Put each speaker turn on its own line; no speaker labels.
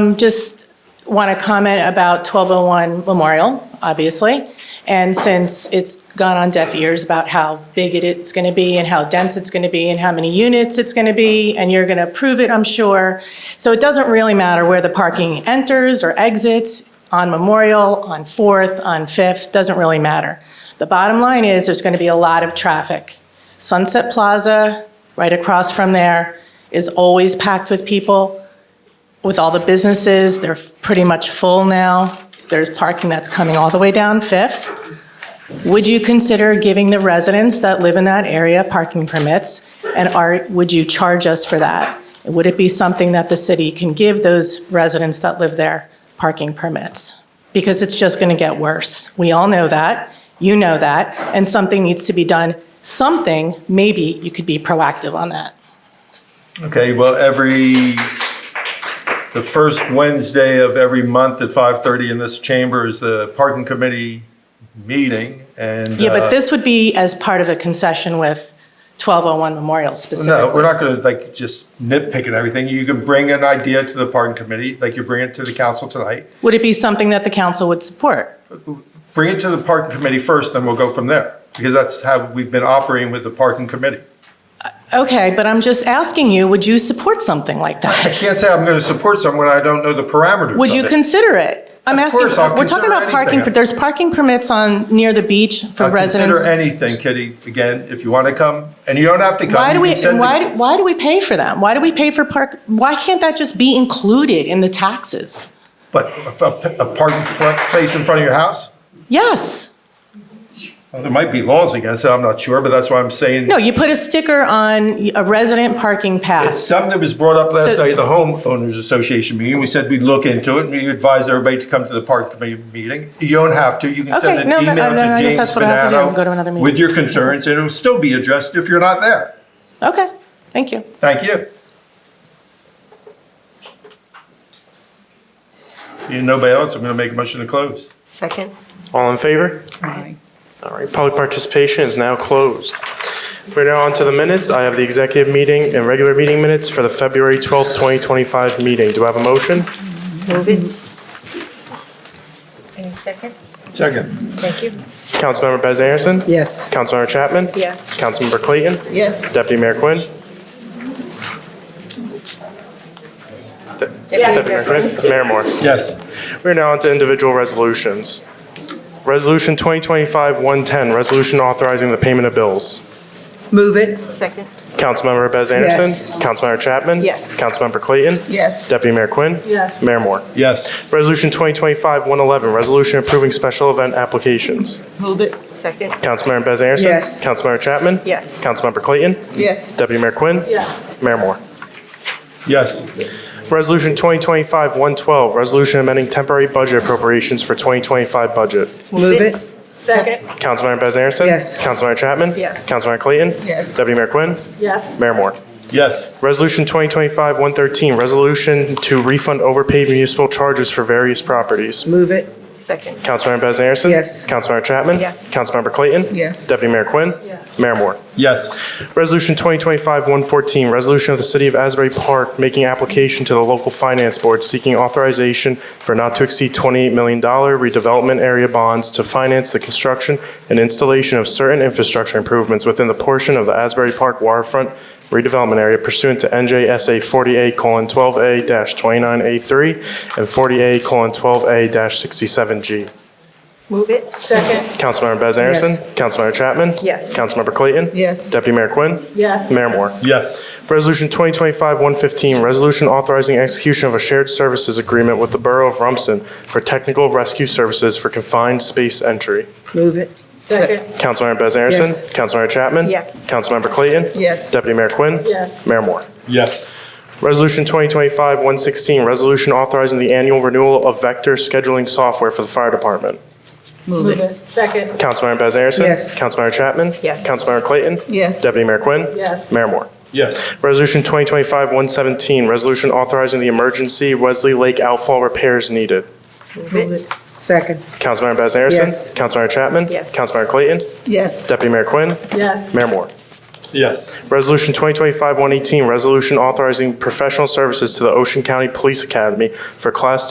Um, Just want to comment about 1201 Memorial, obviously, and since it's gone on deaf ears about how big it- it's going to be and how dense it's going to be and how many units it's going to be, and you're going to approve it, I'm sure. So it doesn't really matter where the parking enters or exits, on Memorial, on Fourth, on Fifth, doesn't really matter. The bottom line is, there's going to be a lot of traffic. Sunset Plaza, right across from there, is always packed with people with all the businesses, they're pretty much full now. There's parking that's coming all the way down Fifth. Would you consider giving the residents that live in that area parking permits? And are, would you charge us for that? Would it be something that the city can give those residents that live there parking permits? Because it's just going to get worse. We all know that. You know that. And something needs to be done. Something, maybe you could be proactive on that.
Okay, well, every, the first Wednesday of every month at 5:30 in this chamber is the parking committee meeting, and.
Yeah, but
uh,
this would be as part of a concession with 1201 Memorial specifically.
No, we're not gonna like just nitpick at everything. You can bring an idea to the parking committee, like you bring it to the council tonight.
Would it be something that the council would support?
Bring it to the parking committee first, then we'll go from there, because that's how we've been operating with the parking committee.
Okay, but I'm just asking you, would you support something like
I
that?
can't say I'm gonna support someone I don't know the parameters
Would you
of it.
consider it? I'm
Of
asking,
course, I'll
we're talking
consider
about parking,
anything.
but there's parking permits on, near the beach for
I'll
residents.
Consider anything, Kitty, again, if you wanna come, and you don't have to come.
Why do
you
we,
can send the-
why, why do we pay for them? Why do we pay for park, why can't that just be included in the taxes?
But a, a parking fr- place in front of your house?
Yes.
Well, There might be laws against it, I'm not sure, but that's why I'm saying.
No, you put a sticker on a resident parking pass.
Something that was brought up last
So-
night, at the homeowners association meeting, we said we'd look into it, and we advise everybody to come to the park committee meeting. You don't have to, you can send
Okay,
an
no, no,
email
no, no, I
to
guess
James
that's what I have to do, go to another
Banano
meeting.
with your concerns, and it'll still be addressed if you're not there.
Okay, thank you.
Thank you. Seeing nobody else, I'm gonna make a motion to close.
Second.
All in favor?
Aye.
All right, public participation is now closed. We're now on to the minutes. I have the executive meeting and regular meeting minutes for the February 12th, 2025 meeting. Do I have a motion?
Move it. Any second?
Second.
Thank you.
Councilmember Bez Anderson?
Yes.
Councilmember Chapman?
Yes.
Councilmember Clayton?
Yes.
Deputy Mayor Quinn? De- Deputy Mayor Quinn? Mayor Moore?
Yes.
We're now on to individual resolutions. Resolution 2025-110, resolution authorizing the payment of bills.
Move it. Second.
Councilmember Bez
Yes.
Anderson. Councilmember Chapman.
Yes.
Councilmember Clayton.
Yes.
Deputy Mayor Quinn.
Yes.
Mayor Moore.
Yes.
Resolution 2025-111, resolution approving special event applications.
Move it. Second.
Councilmember Bez Anderson.
Yes.
Councilmember Chapman.
Yes.
Councilmember Clayton.
Yes.
Deputy Mayor Quinn.
Yes.
Mayor Moore.
Yes.
Resolution 2025-112, resolution amending temporary budget appropriations for 2025 budget.
Move it. Second.
Councilmember Bez Anderson.
Yes.
Councilmember Chapman.
Yes.
Councilmember Clayton.
Yes.
Deputy Mayor Quinn.
Yes.
Mayor Moore.
Yes.
Resolution 2025-113, resolution to refund overpaid municipal charges for various properties.
Move it. Second.
Councilmember Bez Anderson?
Yes.
Councilmember Chapman?
Yes.
Councilmember Clayton?
Yes.
Deputy Mayor Quinn?
Yes.
Mayor Moore.
Yes.
Resolution 2025-114, resolution of the City of Asbury Park making application to the local finance board seeking authorization for not to exceed $28 million redevelopment area bonds to finance the construction and installation of certain infrastructure improvements within the portion of the Asbury Park waterfront redevelopment area pursuant to NJSA 40A:12A-29A3 and 40A:12A-67G.
Move it. Second.
Councilmember Bez Anderson? Councilmember Chapman?
Yes.
Councilmember Clayton?
Yes.
Deputy Mayor Quinn?
Yes.
Mayor Moore.
Yes.
Resolution 2025-115, resolution authorizing execution of a shared services agreement with the Borough of Rumson for technical rescue services for confined space entry.
Move it. Second.
Councilmember Bez Anderson.
Yes.
Councilmember Chapman.
Yes.
Councilmember Clayton.
Yes.
Deputy Mayor Quinn.
Yes.
Mayor Moore.
Yes.
Resolution 2025-116, resolution authorizing the annual renewal of vector scheduling software for the fire department.
Move it. Second.
Councilmember Bez Anderson.
Yes.
Councilmember Chapman.
Yes.
Councilmember Clayton.
Yes.
Deputy Mayor Quinn.
Yes.
Mayor Moore.
Yes.
Resolution 2025-117, resolution authorizing the emergency Wesley Lake outfall repairs needed.
Move it.
Second,
Councilmember Bez Anderson?
Yes.
Councilmember Chapman?
Yes.
Councilmember Clayton?
yes.
Deputy Mayor Quinn?
Yes.
Mayor Moore?
Yes.
Resolution 2025-118, resolution authorizing professional services to the Ocean County Police Academy for Class